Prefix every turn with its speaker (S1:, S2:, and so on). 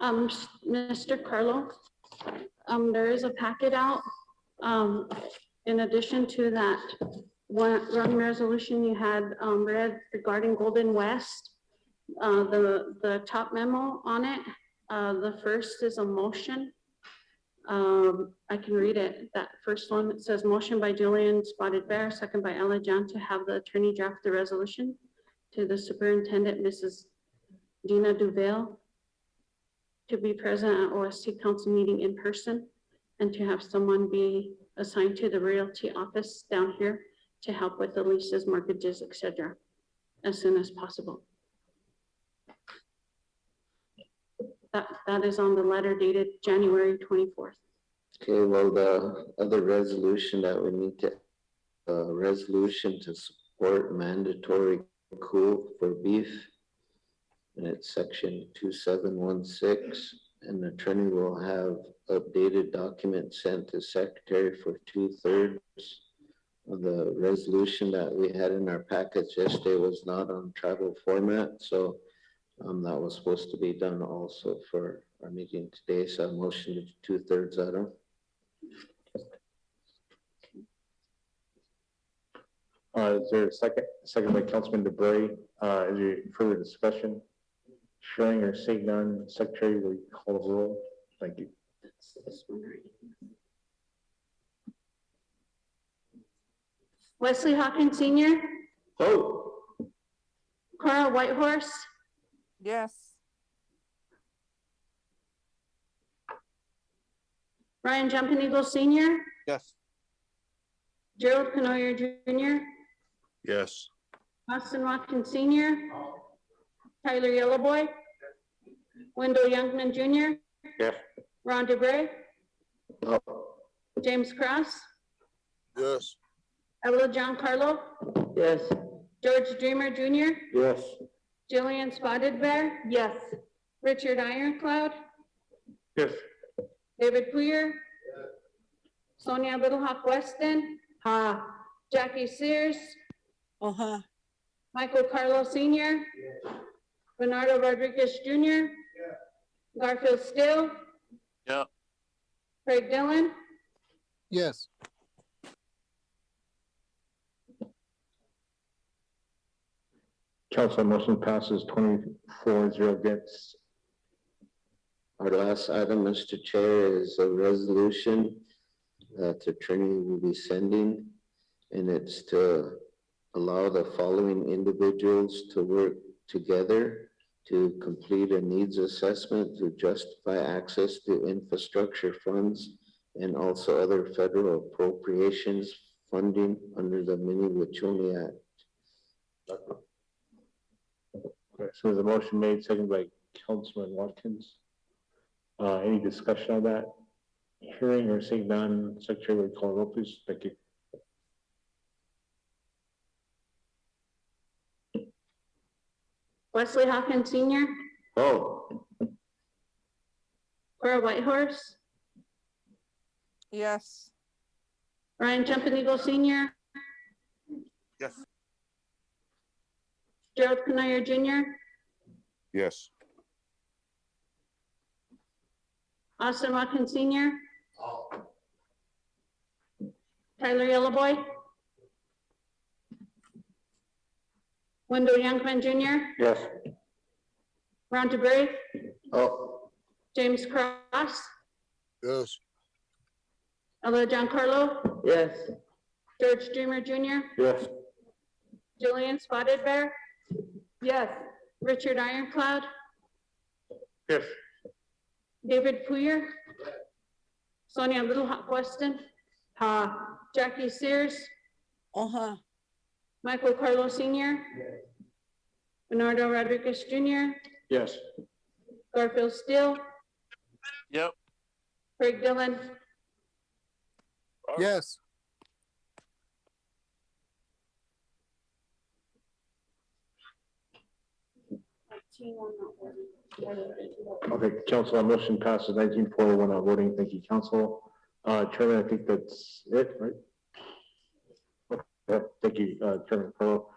S1: Um, Mr. Carlo, um, there is a packet out. Um, in addition to that one, one resolution you had, um, read regarding Golden West, uh, the, the top memo on it, uh, the first is a motion. Um, I can read it. That first one, it says motion by Julian Spotted Bear, second by Ella John to have the attorney draft the resolution to the superintendent, Mrs. Dina Duvale, to be present at OSC council meeting in person and to have someone be assigned to the realty office down here to help with the leases, mortgages, et cetera, as soon as possible. That, that is on the letter dated January twenty-fourth.
S2: Okay, well, the other resolution that we need to, uh, resolution to support mandatory cool for beef. And it's section two seven one six, and the attorney will have updated document sent to secretary for two thirds. The resolution that we had in our package yesterday was not on tribal format, so um, that was supposed to be done also for our meeting today, so I motion to two thirds item.
S3: Uh, is there a second, second by Councilman DeBrey, uh, is there further discussion? Sharing or seeing none, Secretary, will you call the roll? Thank you.
S1: That's this one right here. Wesley Hawkins Senior,
S3: Oh.
S1: Cora Whitehorse,
S4: Yes.
S1: Ryan Jumping Eagle Senior,
S5: Yes.
S1: Gerald Canoyer Junior,
S5: Yes.
S1: Austin Watkins Senior, Tyler Yellowboy, Wendell Youngman Junior.
S3: Yes.
S1: Ron DeBrey,
S3: Oh,
S1: James Cross,
S5: Yes.
S1: Ella Giancarlo,
S2: Yes.
S1: George Dreamer Junior,
S3: yes.
S1: Jillian Spotted Bear. Yes. Richard Ironclad,
S3: Yes.
S1: David Poyer. Sonia Little Hawk Weston. Ha. Jackie Sears,
S4: Uh-huh.
S1: Michael Carlo Senior. Bernardo Rodriguez Junior. Garfield Still.
S5: Yeah.
S1: Craig Dillon,
S5: Yes.
S3: Council motion passes twenty-four zero against.
S2: Our last item, Mr. Chair, is a resolution that the attorney will be sending. And it's to allow the following individuals to work together to complete a needs assessment to justify access to infrastructure funds and also other federal appropriations funding under the Mini Wachoni Act.
S3: Okay, So there's a motion made, second by Councilman Watkins. Uh, any discussion on that? Hearing or seeing none, Secretary, will you call the roll, please? Thank you.
S1: Wesley Hawkins Senior,
S3: Oh.
S1: Cora Whitehorse,
S4: Yes.
S1: Ryan Jumping Eagle Senior.
S5: Yes.
S1: Gerald Canoyer Junior,
S5: Yes.
S1: Austin Watkins Senior. Tyler Yellowboy. Wendell Youngman Junior,
S3: Yes.
S1: Ron DeBrey,
S3: Oh.
S1: James Cross,
S5: Yes.
S1: Ella Giancarlo,
S2: Yes.
S1: George Dreamer Junior,
S3: Yes.
S1: Jillian Spotted Bear. Yes. Richard Ironclad,
S3: Yes.
S1: David Poyer. Sonia Little Hawk Weston. Ha. Jackie Sears,
S4: Uh-huh.
S1: Michael Carlo Senior. Bernardo Rodriguez Junior,
S3: Yes.
S1: Garfield Steele,
S5: Yep.
S1: Craig Dillon.
S5: Yes.
S3: Okay, council, our motion passes nineteen forty, we're not voting, thank you, council. Uh, Chairman, I think that's it, right? Okay, thank you, uh, Chairman Pearl.